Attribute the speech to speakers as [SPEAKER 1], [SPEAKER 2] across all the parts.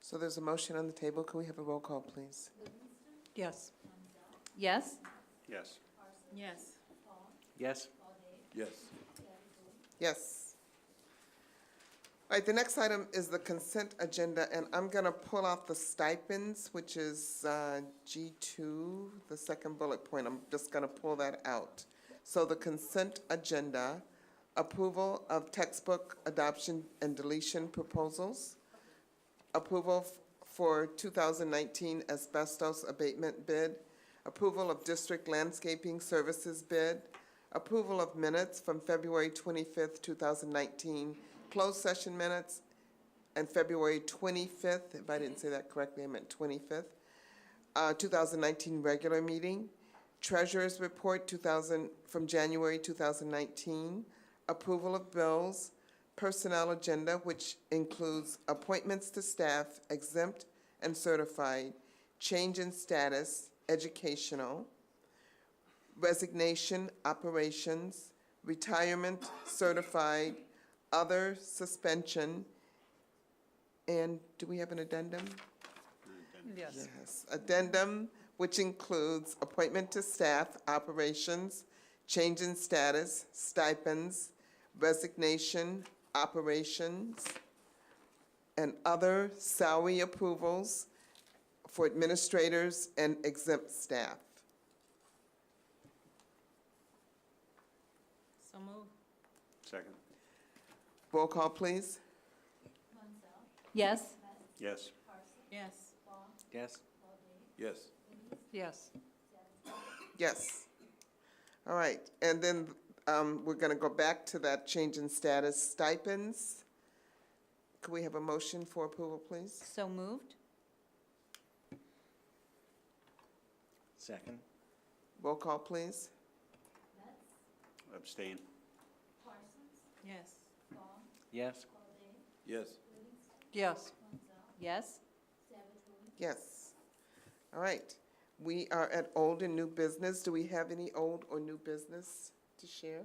[SPEAKER 1] So there's a motion on the table. Can we have a roll call, please?
[SPEAKER 2] Yes.
[SPEAKER 3] Yes?
[SPEAKER 4] Yes.
[SPEAKER 3] Yes.
[SPEAKER 4] Yes.
[SPEAKER 5] Yes.
[SPEAKER 1] Yes. All right, the next item is the consent agenda, and I'm going to pull off the stipends, which is uh, G2, the second bullet point. I'm just going to pull that out. So the consent agenda, approval of textbook adoption and deletion proposals, approval f- for 2019 asbestos abatement bid, approval of district landscaping services bid, approval of minutes from February 25th, 2019, closed session minutes, and February 25th, if I didn't say that correctly, I meant 25th, uh, 2019 regular meeting, treasurer's report 2000, from January 2019, approval of bills, personnel agenda, which includes appointments to staff exempt and certified, change in status, educational, resignation, operations, retirement, certified, other, suspension, and do we have an addendum?
[SPEAKER 2] Yes.
[SPEAKER 1] Addendum, which includes appointment to staff, operations, change in status, stipends, resignation, operations, and other salary approvals for administrators and exempt staff.
[SPEAKER 3] So move.
[SPEAKER 4] Second.
[SPEAKER 1] Roll call, please.
[SPEAKER 3] Yes?
[SPEAKER 4] Yes.
[SPEAKER 3] Yes.
[SPEAKER 4] Yes.
[SPEAKER 5] Yes.
[SPEAKER 2] Yes.
[SPEAKER 1] Yes. All right, and then um, we're going to go back to that change in status stipends. Could we have a motion for approval, please?
[SPEAKER 3] So moved?
[SPEAKER 4] Second.
[SPEAKER 1] Roll call, please.
[SPEAKER 4] Abstain.
[SPEAKER 3] Yes.
[SPEAKER 4] Yes.
[SPEAKER 5] Yes.
[SPEAKER 2] Yes.
[SPEAKER 3] Yes?
[SPEAKER 1] Yes. All right, we are at old and new business. Do we have any old or new business to share?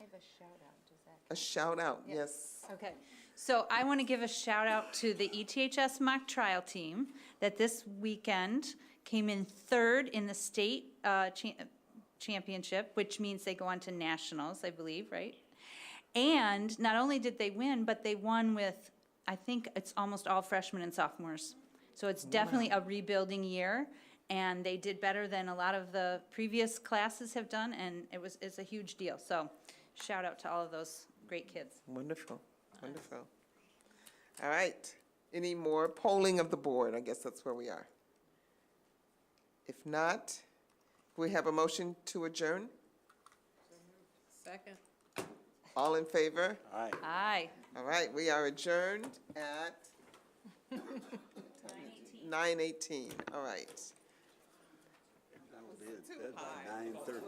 [SPEAKER 3] I have a shout out, does that?
[SPEAKER 1] A shout out,
[SPEAKER 3] Yeah.
[SPEAKER 1] yes.
[SPEAKER 3] Okay, so I want to give a shout out to the E ETHS mock trial team that this weekend came in third in the state uh, cha- championship, which means they go on to nationals, I believe, right? And not only did they win, but they won with, I think it's almost all freshmen and sophomores. So it's definitely a rebuilding year, and they did better than a lot of the previous classes have done, and it was, it's a huge deal. So shout out to all of those great kids.
[SPEAKER 1] Wonderful, wonderful. All right, any more polling of the board? I guess that's where we are. If not, we have a motion to adjourn.
[SPEAKER 2] Second.
[SPEAKER 1] All in favor?
[SPEAKER 4] Aye.
[SPEAKER 3] Aye.
[SPEAKER 1] All right, we are adjourned at nine eighteen, all right.
[SPEAKER 4] Nine thirty.